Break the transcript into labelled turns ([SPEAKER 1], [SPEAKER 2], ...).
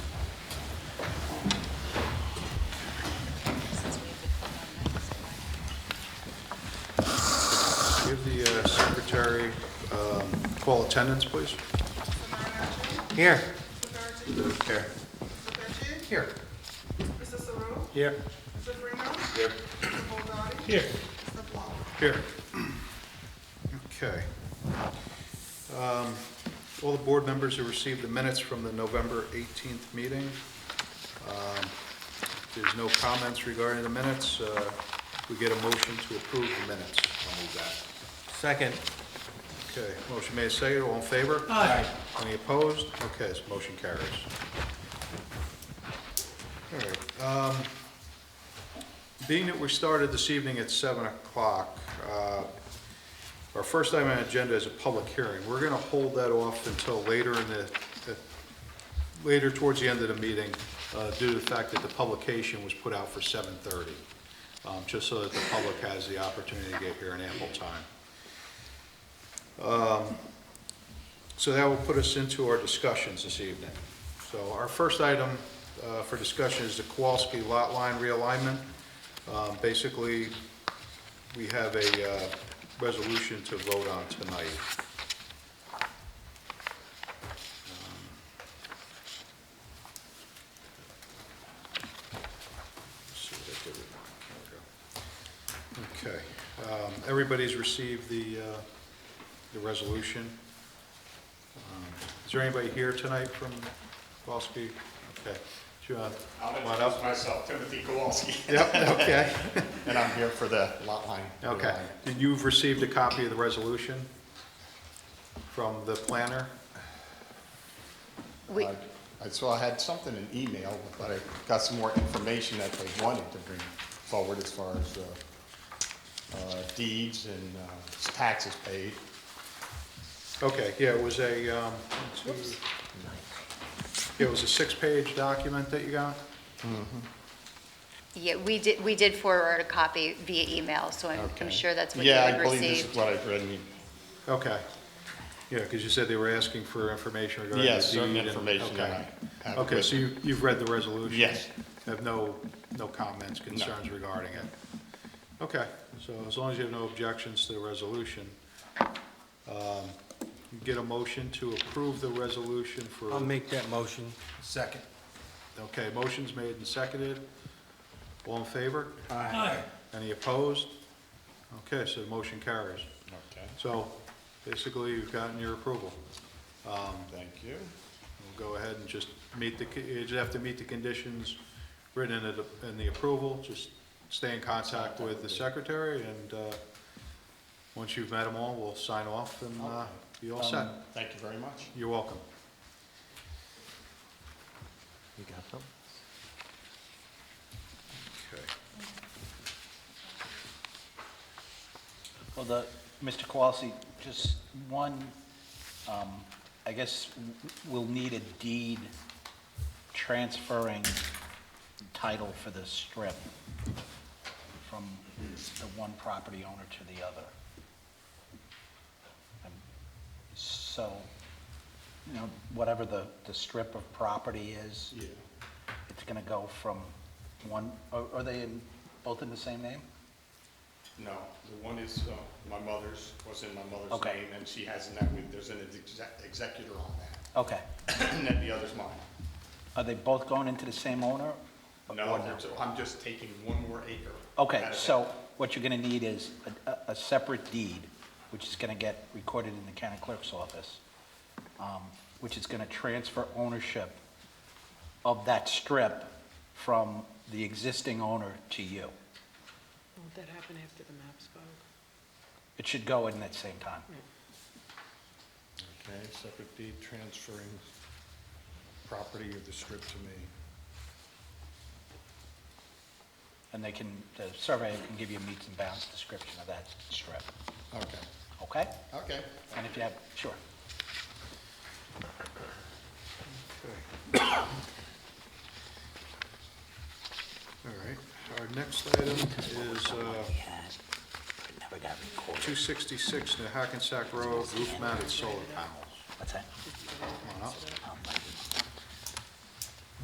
[SPEAKER 1] uh, secretary um, call attendance, please.
[SPEAKER 2] Here.
[SPEAKER 1] Here. Here.
[SPEAKER 3] Mr. Saru,
[SPEAKER 1] Here.
[SPEAKER 3] Mr. Bruno,
[SPEAKER 1] Here.
[SPEAKER 3] Mr. Bulgari,
[SPEAKER 1] Here.
[SPEAKER 3] Mr. Blount.
[SPEAKER 1] Here. Okay. Um, All the board members who received the minutes from the November 18th meeting. Um, There's no comments regarding the minutes. Uh, We get a motion to approve the minutes. I'll move that.
[SPEAKER 2] Second.
[SPEAKER 1] Okay, motion made, seconded, all in favor? Aye. Any opposed? Okay, this motion carries. All right, um, being that we started this evening at seven o'clock, uh, our first item on the agenda is a public hearing. We're gonna hold that off until later in the, the- later towards the end of the meeting, uh, due to the fact that the publication was put out for seven thirty, um, just so that the public has the opportunity to get here in ample time. So that will put us into our discussions this evening. So our first item uh, for discussion is the Kowalski Lot Line Realignment. Um, Basically, we have a uh, resolution to vote on tonight. Let's see what I did with mine. There we go. Okay, Um, everybody's received the, uh, the resolution. Um, Is there anybody here tonight from Kowalski? Okay. Do you want,
[SPEAKER 4] I'll
[SPEAKER 1] come on up?
[SPEAKER 4] introduce myself, Timothy Kowalski,
[SPEAKER 1] Yep, okay,
[SPEAKER 4] and I'm here for the lot line.
[SPEAKER 1] okay. Uh, And you've received a copy of the resolution from the planner?
[SPEAKER 5] We,
[SPEAKER 4] Uh, I So I had something in email, but I got some more information that they wanted to bring forward as far as uh, uh, deeds and uh, taxes paid.
[SPEAKER 1] Okay, yeah, it was a, um, it was a six-page document that you got?
[SPEAKER 5] yeah, we did, we did forward a copy via email, so I'm, I'm
[SPEAKER 1] Okay.
[SPEAKER 5] sure that's what you
[SPEAKER 4] Yeah, I
[SPEAKER 5] had
[SPEAKER 4] believe this is
[SPEAKER 5] received.
[SPEAKER 4] what I read. in-
[SPEAKER 1] Okay. Yeah, because you said they were asking for information regarding the deed.
[SPEAKER 4] Yes, certain
[SPEAKER 1] and-
[SPEAKER 4] information
[SPEAKER 1] okay.
[SPEAKER 4] that I have.
[SPEAKER 1] Okay,
[SPEAKER 4] with
[SPEAKER 1] so
[SPEAKER 4] me.
[SPEAKER 1] you, you've read the resolution?
[SPEAKER 4] Yes.
[SPEAKER 1] Have no, no comments, concerns regarding it? Okay, so as long as you have no objections to the resolution, um, you get a motion to approve the resolution for...
[SPEAKER 2] I'll make that motion. Second.
[SPEAKER 1] Okay, motion's made and seconded. All in favor?
[SPEAKER 2] Aye.
[SPEAKER 1] Any opposed? Okay, so the motion carries.
[SPEAKER 4] Okay,
[SPEAKER 1] So basically, you've gotten your approval.
[SPEAKER 4] thank you.
[SPEAKER 1] We'll go ahead and just meet the, you just have to meet the conditions written in it, in the approval, just stay in contact with the secretary, and, uh, once you've met them all, we'll sign off and, uh, be all set.
[SPEAKER 4] Um, Thank you very much.
[SPEAKER 1] You're welcome.
[SPEAKER 2] You got them?
[SPEAKER 1] Okay.
[SPEAKER 6] Well, the, Mr. Kowalski, just one, um, I guess w- we'll need a deed transferring title for this strip from the one property owner to the other. Um, So, you know, whatever the, the strip of property is,
[SPEAKER 4] Yeah.
[SPEAKER 6] it's gonna go from one, are are they in, both in the same name?
[SPEAKER 4] No, the one is, uh, my mother's, was in my mother's
[SPEAKER 6] Okay.
[SPEAKER 4] name, and she has that, with- there's an exec- executor on that,
[SPEAKER 6] Okay.
[SPEAKER 4] and then the other's mine.
[SPEAKER 6] Are they both going into the same owner?
[SPEAKER 4] No,
[SPEAKER 6] Or
[SPEAKER 4] there's- I'm just taking one more acre.
[SPEAKER 6] Okay,
[SPEAKER 4] out of
[SPEAKER 6] so
[SPEAKER 4] that.
[SPEAKER 6] what you're gonna need is a, a, a separate deed, which is gonna get recorded in the county clerk's office, um, which is gonna transfer ownership of that strip from the existing owner to you.
[SPEAKER 7] Won't that happen after the map spoke?
[SPEAKER 6] It should go in at the same time.
[SPEAKER 4] Okay, separate deed transferring property of the strip to me.
[SPEAKER 6] And they can, the surveyor can give you a meets and bounds description of that strip,
[SPEAKER 4] Okay,
[SPEAKER 6] okay?
[SPEAKER 4] okay.
[SPEAKER 6] And if you have, sure.
[SPEAKER 1] All right, our next item is, uh,
[SPEAKER 6] Never got recorded.
[SPEAKER 1] two sixty-six New Hackensack Road, roof mounted solar panels.
[SPEAKER 6] What's that?
[SPEAKER 1] Come on up.